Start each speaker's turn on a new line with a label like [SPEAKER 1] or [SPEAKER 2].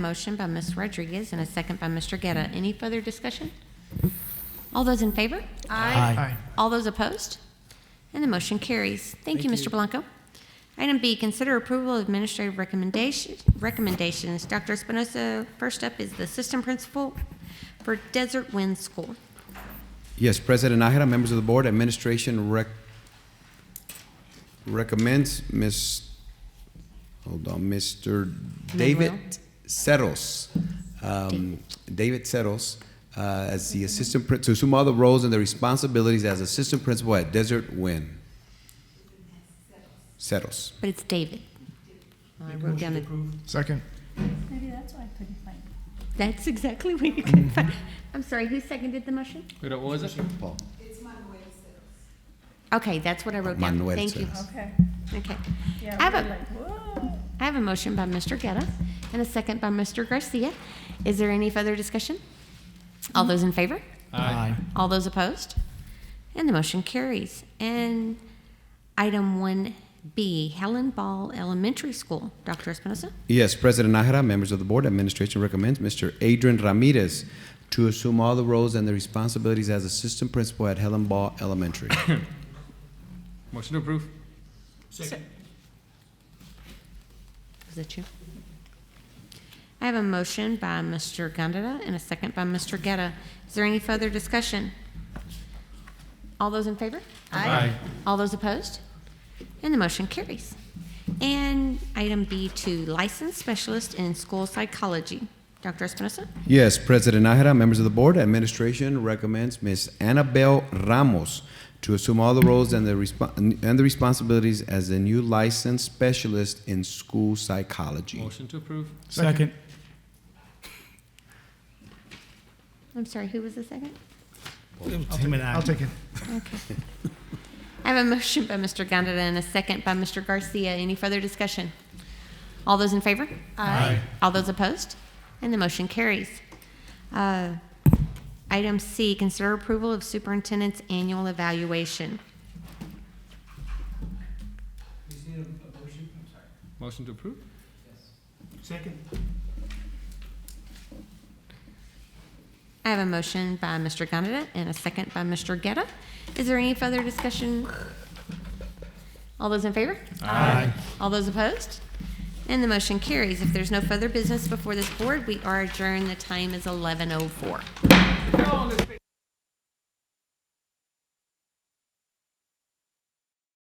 [SPEAKER 1] Motion by Ms. Rodriguez and a second by Mr. Guerra. Any further discussion? All those in favor?
[SPEAKER 2] Aye.
[SPEAKER 1] All those opposed? And the motion carries. Thank you, Mr. Blanco. Item B, consider approval of administrative recommendation, recommendations. Dr. Espinosa, first up is the assistant principal for Desert Wind School.
[SPEAKER 3] Yes, President Nahara, members of the board, administration rec- recommends Ms., hold on, Mr. David
[SPEAKER 1] Manuel.
[SPEAKER 3] Settles. um, David Settles, uh, as the assistant, prin- to assume all the roles and the responsibilities as assistant principal at Desert Wind. Settles.
[SPEAKER 1] But it's David. I wrote down it.
[SPEAKER 2] Second.
[SPEAKER 4] Maybe that's why I couldn't find it.
[SPEAKER 1] That's exactly what you can find. I'm sorry, who seconded the motion?
[SPEAKER 5] Wait, what was it?
[SPEAKER 3] Paul.
[SPEAKER 1] Okay, that's what I wrote down.
[SPEAKER 3] Manuel
[SPEAKER 1] Thank you.
[SPEAKER 3] Settles.
[SPEAKER 4] Okay.
[SPEAKER 1] Okay.
[SPEAKER 4] Yeah,
[SPEAKER 1] I have
[SPEAKER 4] we're
[SPEAKER 1] a-
[SPEAKER 4] like, whoa.
[SPEAKER 1] I have a motion by Mr. Guerra and a second by Mr. Garcia. Is there any further discussion? All those in favor?
[SPEAKER 2] Aye.
[SPEAKER 1] All those opposed? And the motion carries. And item 1B, Helen Ball Elementary School. Dr. Espinosa?
[SPEAKER 3] Yes, President Nahara, members of the board, administration recommends Mr. Adrian Ramirez to assume all the roles and the responsibilities as assistant principal at Helen Ball Elementary.
[SPEAKER 5] Motion to approve.
[SPEAKER 1] Is that you? I have a motion by Mr. Gondeta and a second by Mr. Guerra. Is there any further discussion? All those in favor?
[SPEAKER 5] Aye.
[SPEAKER 1] All those opposed? And the motion carries. And item B2, licensed specialist in school psychology. Dr. Espinosa?
[SPEAKER 3] Yes, President Nahara, members of the board, administration recommends Ms. Annabelle Ramos to assume all the roles and the respo- and the responsibilities as the new licensed specialist in school psychology.
[SPEAKER 5] Motion to approve.
[SPEAKER 2] Second.
[SPEAKER 1] I'm sorry, who was the second?
[SPEAKER 2] I'll take it.
[SPEAKER 1] I have a motion by Mr. Gondeta and a second by Mr. Garcia. Any further discussion? All those in favor? Aye. All those opposed? And the motion carries. Uh, Item C, consider approval of superintendent's annual evaluation.
[SPEAKER 5] Motion to approve.
[SPEAKER 1] I have a motion by Mr. Gondeta and a second by Mr. Getta. Is there any further discussion? All those in favor? Aye. All those opposed? And the motion carries. If oh there's no further business before this board, we are adjourned. The time is 11:04.
[SPEAKER 5] Come on, let's